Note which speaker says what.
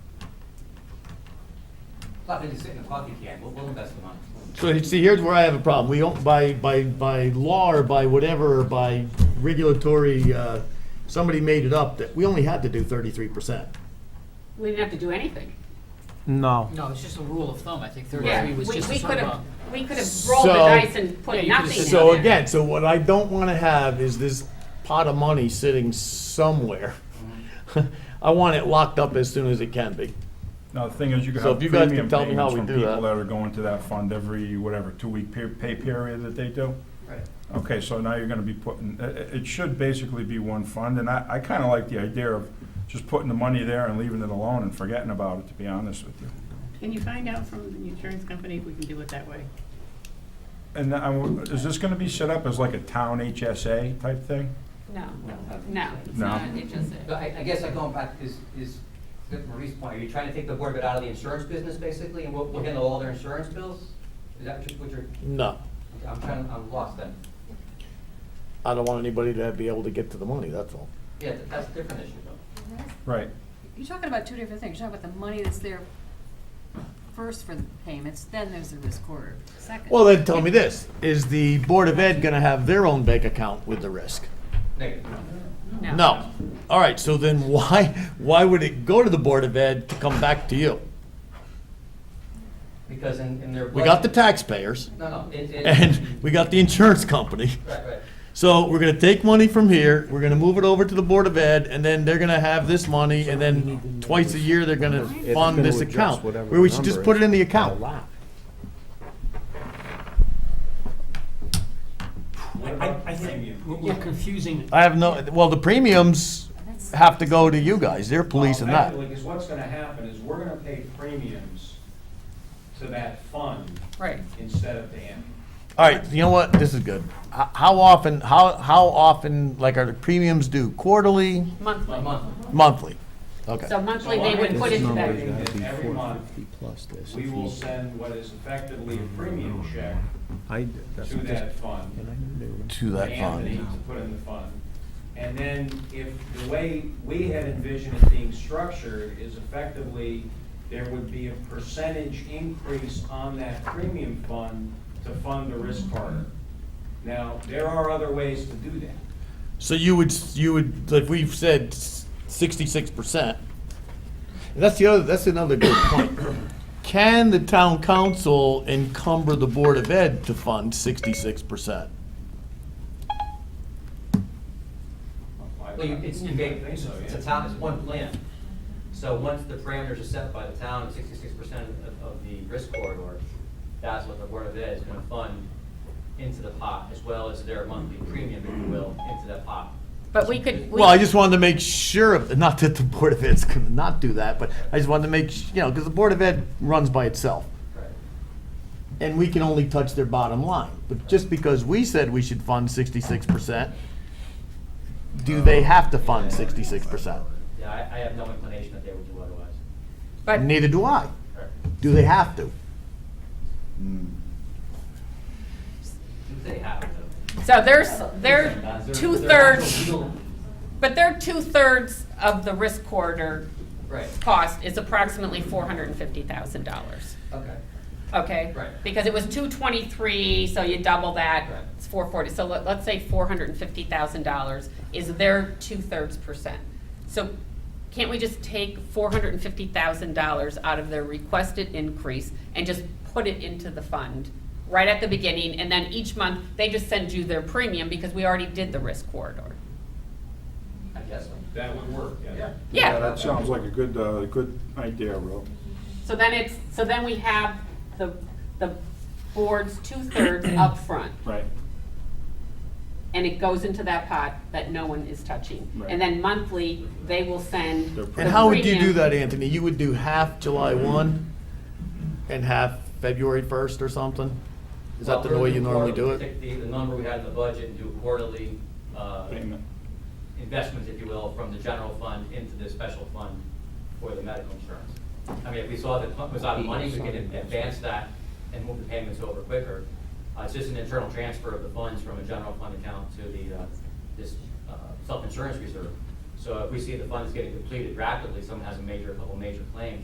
Speaker 1: Club, and it's in the club, you can, we'll, we'll invest the money.
Speaker 2: So see, here's where I have a problem. We don't, by, by, by law or by whatever, or by regulatory, uh, somebody made it up that we only had to do thirty-three percent.
Speaker 3: We didn't have to do anything.
Speaker 4: No.
Speaker 5: No, it's just a rule of thumb, I think
Speaker 3: Yeah,
Speaker 5: thirty-three
Speaker 3: we
Speaker 5: was just a
Speaker 3: we
Speaker 5: sort
Speaker 3: could
Speaker 5: of
Speaker 3: have,
Speaker 5: a.
Speaker 3: we could have rolled the
Speaker 2: So-
Speaker 3: dice and
Speaker 5: Yeah,
Speaker 3: put
Speaker 5: you could've
Speaker 3: nothing.
Speaker 5: said
Speaker 3: in
Speaker 2: So
Speaker 3: there.
Speaker 2: again, so what I don't wanna have is this pot of money sitting somewhere. I want it locked up as soon as it can be.
Speaker 6: Now, the thing is, you could
Speaker 2: So
Speaker 6: have
Speaker 2: if you guys
Speaker 6: premium
Speaker 2: can tell me how
Speaker 6: payments
Speaker 2: we
Speaker 6: from
Speaker 2: do that.
Speaker 6: people that are going to that fund every, whatever, two-week pe- pay period that they do.
Speaker 5: Right.
Speaker 6: Okay, so now you're gonna be putting, i- i- it should basically be one fund, and I, I kinda like the idea of just putting the money there and leaving it alone and forgetting about it, to be honest with you.
Speaker 7: Can you find out from the insurance company if we can do it that way?
Speaker 6: And I w- is this gonna be set up as like a town HSA type thing?
Speaker 3: No, no, it's
Speaker 6: No.
Speaker 3: not, it just,
Speaker 1: But I, I guess I going back, is, is, to Marie's point, are you trying to take the board of it out of the insurance business, basically, and we'll, we'll handle all their insurance bills? Is that what you're- what you're,
Speaker 2: No,
Speaker 1: I'm trying, I'm lost then.
Speaker 2: I don't want anybody to be able to get to the money, that's all.
Speaker 1: Yeah, that- that's a different issue though.
Speaker 6: Right.
Speaker 8: You're talking about two different things. You're talking about the money that's there first for the payments, then there's the risk corridor second.
Speaker 2: Well, then tell me this, is the Board of Ed gonna have their own bank account with the risk?
Speaker 1: Negative.
Speaker 2: No. All right, so then why, why would it go to the Board of Ed to come back to you?
Speaker 1: Because in, in their.
Speaker 2: We got the
Speaker 1: budget-
Speaker 2: taxpayers
Speaker 1: No, no, it, it.
Speaker 2: and we got the insurance company.
Speaker 1: Right, right.
Speaker 2: So we're gonna take money from here, we're gonna move it over to the Board of Ed, and then they're gonna have this money, and then twice a year, they're gonna
Speaker 4: It's
Speaker 2: fund
Speaker 4: gonna
Speaker 2: this
Speaker 4: adjust
Speaker 2: account.
Speaker 4: whatever
Speaker 2: Where we should
Speaker 4: the
Speaker 2: just
Speaker 4: number
Speaker 2: put it
Speaker 4: is.
Speaker 2: in the account.
Speaker 4: Wow.
Speaker 5: I, I think we're- we're confusing
Speaker 2: I have no, well, the premiums have to go to you guys, they're policing
Speaker 9: Well,
Speaker 2: that.
Speaker 9: Actually, because what's gonna happen is we're gonna pay premiums to that fund
Speaker 5: Right.
Speaker 9: instead of to him.
Speaker 2: All right, you know what, this is good. H- How often, how, how often, like, are the premiums due quarterly,
Speaker 3: monthly.
Speaker 1: A month.
Speaker 2: monthly? Okay.
Speaker 3: So monthly, they would put
Speaker 9: This
Speaker 3: into
Speaker 9: number
Speaker 3: that.
Speaker 9: is gonna be Every month,
Speaker 4: 450 plus this.
Speaker 9: We will send what is effectively a premium check
Speaker 4: I,
Speaker 9: to that fund,
Speaker 2: To
Speaker 9: to
Speaker 2: that
Speaker 9: Anthony
Speaker 2: fund.
Speaker 9: to put in the fund. And then if the way we had envisioned it being structured is effectively, there would be a percentage increase on that premium fund to fund the risk corridor. Now, there are other ways to do that.
Speaker 2: So you would, you would, like we've said, sixty-six percent. That's the other, that's another good point. Can the town council encumber the Board of Ed to fund sixty-six percent?
Speaker 1: Well, you, it's, you gave,
Speaker 9: I think so,
Speaker 1: it's
Speaker 9: Oh, yeah.
Speaker 1: a town, it's one plan. So once the parameters are set by the town, sixty-six percent of, of the risk corridor, that's what the Board of Ed is gonna fund into the pot, as well as their monthly premium, if you will, into that pot.
Speaker 3: But we could. we-
Speaker 2: Well, I just wanted to make sure, of not that the Board of Ed's gonna not do that, but I just wanted to make, s- you know, because the Board of Ed runs by itself.
Speaker 1: Right.
Speaker 2: and we can only touch their bottom line. But just because we said we should fund sixty-six percent, do they have to fund sixty-six percent?
Speaker 1: Yeah, I, I have no inclination that they would do otherwise.
Speaker 3: But
Speaker 2: Neither do I.
Speaker 1: Right.
Speaker 2: Do they have to?
Speaker 1: They have to.
Speaker 3: So there's, they're
Speaker 1: They're- they're
Speaker 3: two-thirds,
Speaker 1: actual legal-
Speaker 3: but they're two-thirds of the risk corridor
Speaker 1: Right,
Speaker 3: cost is approximately four hundred and fifty thousand dollars,
Speaker 1: okay.
Speaker 3: okay?
Speaker 1: Right.
Speaker 3: Because it was two twenty-three, so you double that,
Speaker 1: Right.
Speaker 3: it's four forty, so let, let's say four hundred and fifty thousand dollars is their two-thirds percent. So can't we just take four hundred and fifty thousand dollars out of their requested increase and just put it into the fund right at the beginning, and then each month, they just send you their premium because we already did the risk corridor?
Speaker 1: I guess so.
Speaker 9: That would work, yeah.
Speaker 3: Yeah.
Speaker 6: That sounds like a good, uh, good idea, Rob.
Speaker 3: So then it's, so then we have the, the board's two-thirds up front,
Speaker 6: Right.
Speaker 3: and it goes into that pot that no one is touching.
Speaker 6: Right.
Speaker 3: And then monthly, they will send.
Speaker 6: Their
Speaker 2: And
Speaker 6: premium.
Speaker 3: the
Speaker 2: how would you do
Speaker 3: premium.
Speaker 2: that, Anthony? You would do half July one and half February first or something? Is that the
Speaker 1: Well,
Speaker 2: way
Speaker 1: we're
Speaker 2: you normally do
Speaker 1: quarterly. Take
Speaker 2: it?
Speaker 1: the, the number we had in the budget and do quarterly, uh,
Speaker 6: Payment.
Speaker 1: investments, if you will, from the general fund into the special fund for the medical insurance. I mean, if we saw that it was out of money, we could advance that and move the payments over quicker. Uh, It's just an internal transfer of the funds from a general fund account to the, uh, this uh, self-insurance reserve. So if we see the funds getting depleted rapidly, someone has a major, a couple major claims,